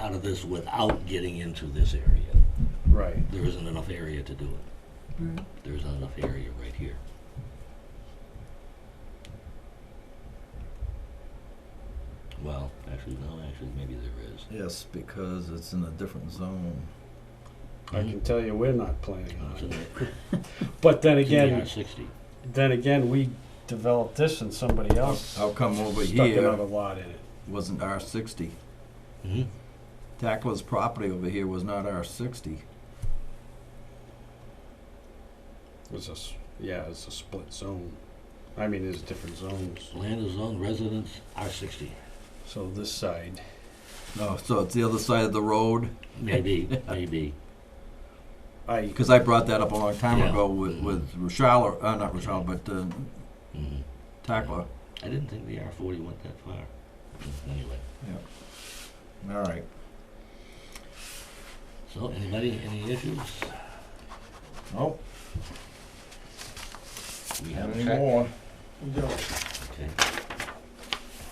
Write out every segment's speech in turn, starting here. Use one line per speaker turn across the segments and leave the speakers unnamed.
out of this without getting into this area.
Right.
There isn't enough area to do it.
Right.
There's not enough area right here. Well, actually, no, actually, maybe there is.
Yes, because it's in a different zone.
I can tell you, we're not planning
Uh,
on
it's in
it.
the-
But then
it's in the
again,
R60.
then again, we developed this and somebody else
How come over
stuck another
here
lot in it.
wasn't R sixty?
Mhm.
Tackler's property over here was not R sixty.
It was a s yeah, it's a split zone. I mean, there's different zones.
Land is zoned residence R60,
So this side,
No, so it's the other side of the road,
maybe, maybe.
I
because I brought that up a long time
Yeah.
ago with, with Rochelle, uh, not Rochelle, but, uh,
Mhm.
Tackler.
I didn't think the R40 went that far. Anyway,
All right.
so anybody, any issues?
Oh,
We have a
any
check.
more?
We do.
Okay.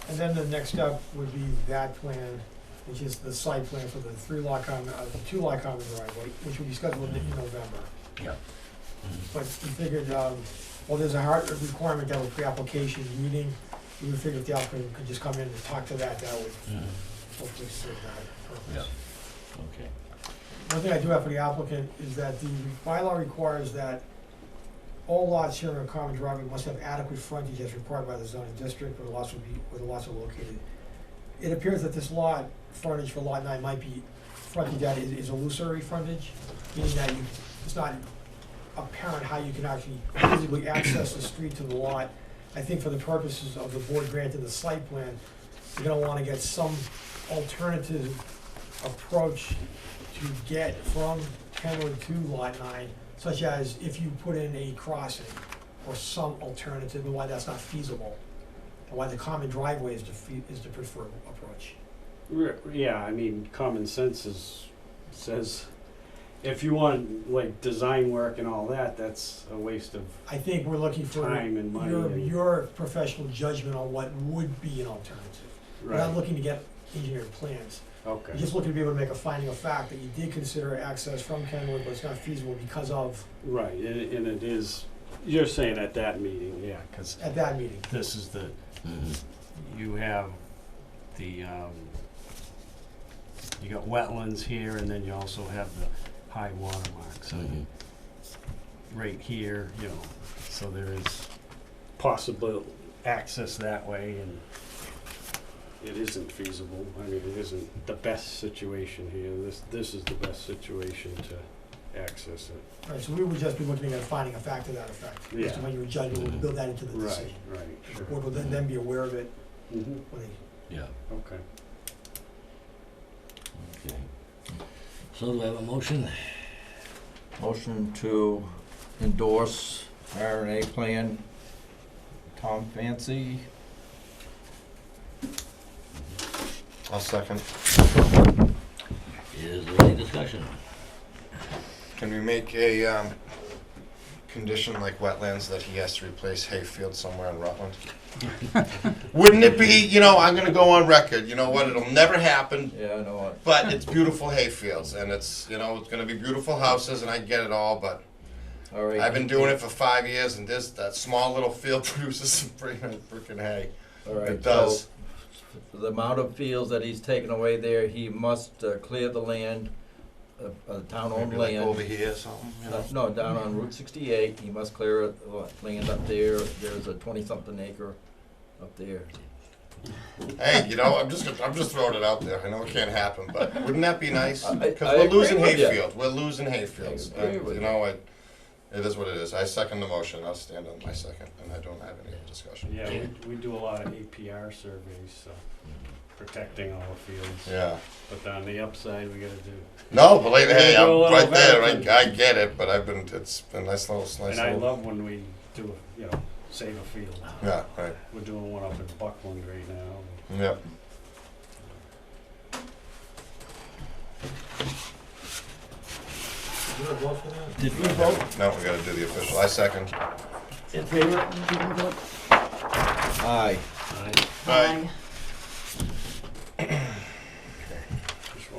And then the next step would be that plan, which is the site plan for the three lot common, uh, the two lot common driveway, which will be scheduled in November.
Yeah.
But we figured, um, well, there's a hard requirement that was pre-application meeting, we figured if the applicant could just come in and talk to that, that would
Mhm.
hopefully serve that
Yeah.
purpose.
Okay.
One thing I do have for the applicant is that the bylaw requires that all lots sharing a common driveway must have adequate frontage as required by the zoning district where the lots will be, where the lots are located. It appears that this lot, frontage for lot nine might be, frontage that is is illusory frontage, meaning that you, it's not apparent how you can actually physically access the street to the lot. I think for the purposes of the board granting the site plan, you're gonna wanna get some alternative approach to get from Kenwood to Lot Nine, such as if you put in a crossing or some alternative, and why that's not feasible, and why the common driveway is the, fe- is the preferred approach.
Re- Yeah, I mean, common sense is, says, if you want, like, design work and all that, that's a waste of
I think we're looking for
time and money.
your,
and-
your professional judgment on what would be an alternative. We're not
Right,
looking to get engineered plans, we're
okay,
just looking to be able to make a finding of fact that you did consider access from Kenwood, but it's not feasible because of,
right, and, and it is, you're saying at that meeting, yeah, because
at that meeting.
this is the,
Mhm.
you have the, um, you got wetlands here, and then you also have the high water mark, so
Mhm.
right here, you know, so there is possible access that way and it isn't feasible. I mean, it isn't the best situation here. This, this is the best situation to access it.
Right, so we would just be looking at finding a fact to that effect, as to
Yeah.
what your judgment would build that into the decision.
Right, right,
The
sure.
board will then, then be aware of it
Mhm,
when they
Yeah,
Okay.
okay. So do I have a motion?
Motion to endorse R and A plan, Tom Fancy.
I'll second.
Is there any discussion?
Can we make a, um, condition like wetlands that he has to replace hayfield somewhere in Rutland? Wouldn't it be, you know, I'm gonna go on record, you know what, it'll never happen,
Yeah, I know what.
but it's beautiful hayfields, and it's, you know, it's gonna be beautiful houses, and I get it all, but
All right.
I've been doing it for five years, and this, that small little field produces some freaking, freaking hay.
All right,
It does.
so for The amount of fields that he's taken away there, he must uh, clear the land, uh, uh, town-owned
Maybe like over
land.
here or something, you know?
Uh, No, down on Route sixty-eight, he must clear uh, land up there, there's a twenty-something acre up there.
Hey, you know, I'm just I'm just throwing it out there. I know it can't happen, but wouldn't that be nice?
I- I-
Because
I
we're
agree
losing
with you.
hayfields. We're losing hayfields.
I agree
Uh,
with
you
you.
know, it, it is what it is. I second the motion. I'll stand on my second, and I don't have any discussion.
Yeah, we, we do a lot of APR surveys, so protecting all the fields.
Yeah.
But on the upside, we gotta do,
No, but like, hey,
Yeah, go a
I'm
little
right there. I,
back.
I get it, but I've been. It's been a nice little, nice
and I
little.
love when we do, you know, save a field.
yeah. Right.
We're doing one up in Buckland right now.
Yep.
Did you vote for that?
Did we
Now we got to do the official. I second.
Aye.
Aye.
Aye.